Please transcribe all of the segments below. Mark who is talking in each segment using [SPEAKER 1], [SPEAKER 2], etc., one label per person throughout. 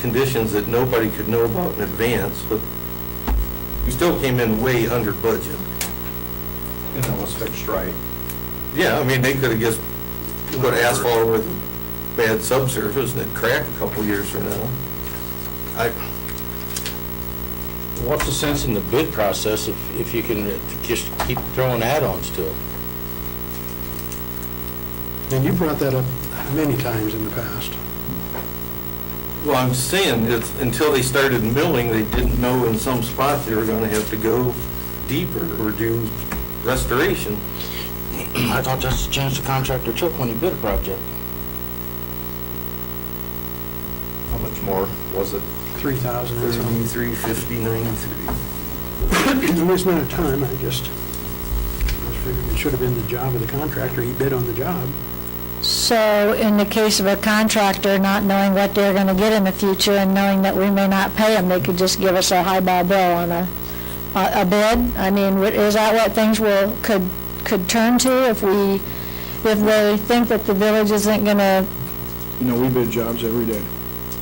[SPEAKER 1] conditions that nobody could know about in advance, but you still came in way under budget.
[SPEAKER 2] And that was fixed right.
[SPEAKER 1] Yeah, I mean, they could have just put asphalt with bad subsurface and it cracked a couple years from now. I,
[SPEAKER 3] What's the sense in the bid process if, if you can just keep throwing add-ons to it?
[SPEAKER 4] And you brought that up many times in the past.
[SPEAKER 1] well, I'm saying, it's, until they started milling, they didn't know in some spots they were gonna have to go deeper or do restoration.
[SPEAKER 3] I thought that's the chance the contractor took when he bid a project.
[SPEAKER 2] How much more was it?
[SPEAKER 4] 3,000 or something.
[SPEAKER 1] Thirty-three, fifty, ninety-three.
[SPEAKER 4] It's not a time, I just, I was figuring it should have been the job of the contractor. He bid on the job.
[SPEAKER 5] So in the case of a contractor not knowing what they're going to get in the future and knowing that we may not pay them, they could just give us a highball bill on a, a a bid? I mean, wh- is that what things will, could, could turn to if we, if they think that the village isn't going to,
[SPEAKER 6] You know, we bid jobs every day.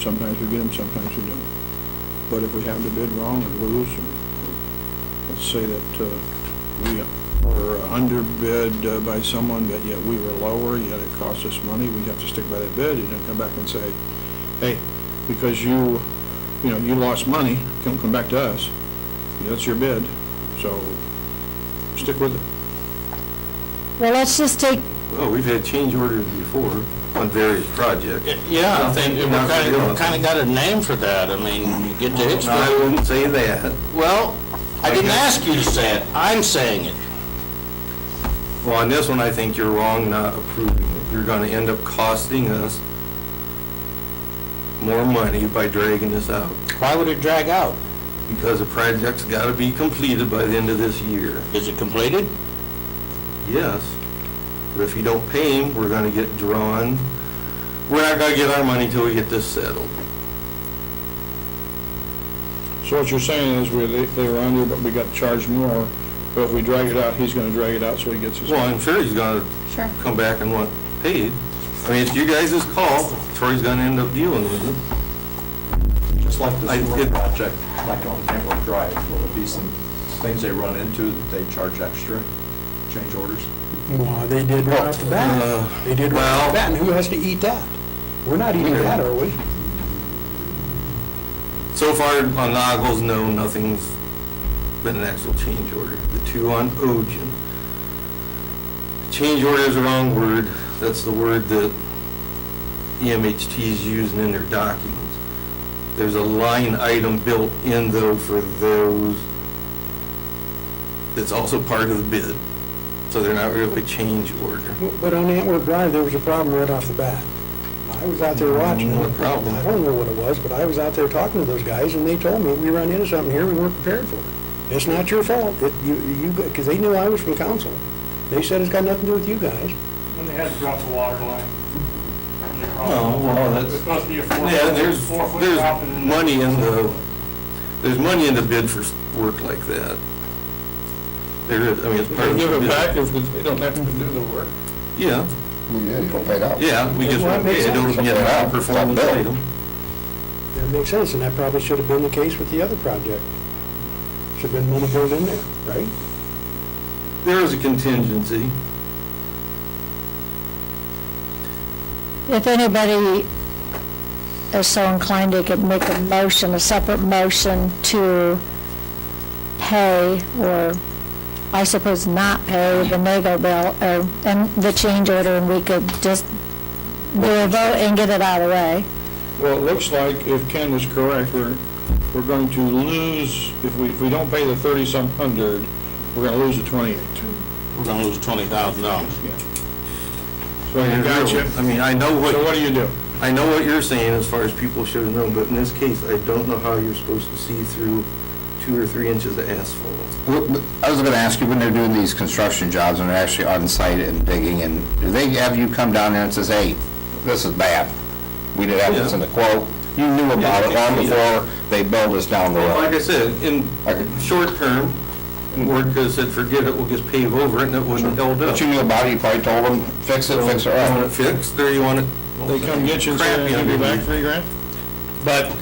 [SPEAKER 6] Sometimes we get them, sometimes we don't. But if we have the bid wrong or lose, or, let's say that, uh, we were underbid uh, by someone, but yet we were lower, yet it cost us money, we have to stick by that bid, you don't come back and say, hey, because you, you know, you lost money, don't come back to us. That's your bid, so stick with it.
[SPEAKER 5] well, let's just take,
[SPEAKER 1] Well, we've had change orders before on various projects.
[SPEAKER 3] Yeah, I think we kind of, kind of got a name for that. I mean, you get to
[SPEAKER 1] No, I
[SPEAKER 3] explain.
[SPEAKER 1] wouldn't say that.
[SPEAKER 3] Well, I didn't ask you to say it. I'm saying it.
[SPEAKER 1] Well, on this one, I think you're wrong not approving it. You're gonna end up costing us more money by dragging this out,
[SPEAKER 3] Why would it drag out?
[SPEAKER 1] because the project's gotta be completed by the end of this year.
[SPEAKER 3] Is it completed?
[SPEAKER 1] Yes, but if you don't pay him, we're gonna get drawn, we're not gonna get our money till we get this settled.
[SPEAKER 6] So what you're saying is we, they they were under, but we got charged more, but if we drag it out, he's gonna drag it out, so he gets his.
[SPEAKER 1] Well, I'm sure he's gonna
[SPEAKER 5] Sure.
[SPEAKER 1] come back and want paid. I mean, it's you guys' call, Troy's gonna end up dealing with it.
[SPEAKER 2] Just like
[SPEAKER 1] I-
[SPEAKER 2] this sewer
[SPEAKER 1] it-
[SPEAKER 2] project, like on Tamworth Drive, will there be some things they run into that they charge extra, change orders?
[SPEAKER 4] Well, they did right off the bat. They did right off the bat, and who has to eat that? We're not eating that, are we?
[SPEAKER 1] So far on Nagels, no, nothing's been an actual change order. The two on Ogen. Change order is the wrong word. That's the word that E EMHT is using in their documents. There's a line item built in though for those that's also part of the bid. So they're not really change order.
[SPEAKER 4] But on Antwerp Drive, there was a problem right off the bat. I was out there watching.
[SPEAKER 1] What problem?
[SPEAKER 4] I don't know what it was, but I was out there talking to those guys, and they told me, we run into something here we weren't prepared for. It's not your fault, that you, you, because they knew I was from council. They said it's got nothing to do with you guys.
[SPEAKER 7] When they had to drop the water line. when they crossed-
[SPEAKER 1] Oh, well, that's-
[SPEAKER 7] It's supposed to be a four.
[SPEAKER 1] Yeah, there's,
[SPEAKER 7] four foot drop and
[SPEAKER 1] there's
[SPEAKER 7] then-
[SPEAKER 1] money in the, there's money in the bid for s- work like that. There is, I mean, it's part of. the
[SPEAKER 6] Give it
[SPEAKER 1] bid.
[SPEAKER 6] back if they don't have to do the work.
[SPEAKER 1] Yeah,
[SPEAKER 8] Yeah, you don't pay it out.
[SPEAKER 1] yeah, we just
[SPEAKER 4] Well,
[SPEAKER 1] want to
[SPEAKER 4] that
[SPEAKER 1] pay
[SPEAKER 4] makes
[SPEAKER 1] it,
[SPEAKER 4] sense.
[SPEAKER 1] don't get a high performance item.
[SPEAKER 4] That makes sense, and that probably should have been the case with the other project. Should have been money built in there, right?
[SPEAKER 1] There is a contingency.
[SPEAKER 5] if anybody is so inclined, they could make a motion, a separate motion to pay or, I suppose, not pay the Nago bill or, and the change order, and we could just do a vote and get it out of the way.
[SPEAKER 6] Well, it looks like if Ken is correct, we're, we're going to lose, if we, if we don't pay the thirty-some hundred, we're gonna lose the twenty-eight.
[SPEAKER 3] We're gonna lose twenty thousand dollars.
[SPEAKER 6] So Oh, you
[SPEAKER 1] I
[SPEAKER 6] gotcha.
[SPEAKER 1] mean, I know
[SPEAKER 6] So what
[SPEAKER 1] what,
[SPEAKER 6] do you do?
[SPEAKER 1] I know what you're saying as far as people should have known, but in this case, I don't know how you're supposed to see through two or three inches of asphalt.
[SPEAKER 8] I was gonna ask you, when they're doing these construction jobs and they're actually on site and digging, and do they have you come down there and says, hey, this is bad? We didn't have this in the quote. You knew about it long before they built us down the
[SPEAKER 1] Like I
[SPEAKER 8] road.
[SPEAKER 1] said, in
[SPEAKER 8] Okay.
[SPEAKER 1] short term, Ward could have said, forget it, we'll just pave over it, and it wouldn't have held up.
[SPEAKER 8] But you knew about it, you probably told them, fix it, fix it
[SPEAKER 1] You want it
[SPEAKER 8] right.
[SPEAKER 1] fixed, or you want it
[SPEAKER 6] They come get you and say,
[SPEAKER 1] Crappy
[SPEAKER 6] give you
[SPEAKER 1] underneath.
[SPEAKER 6] back three grand?
[SPEAKER 3] But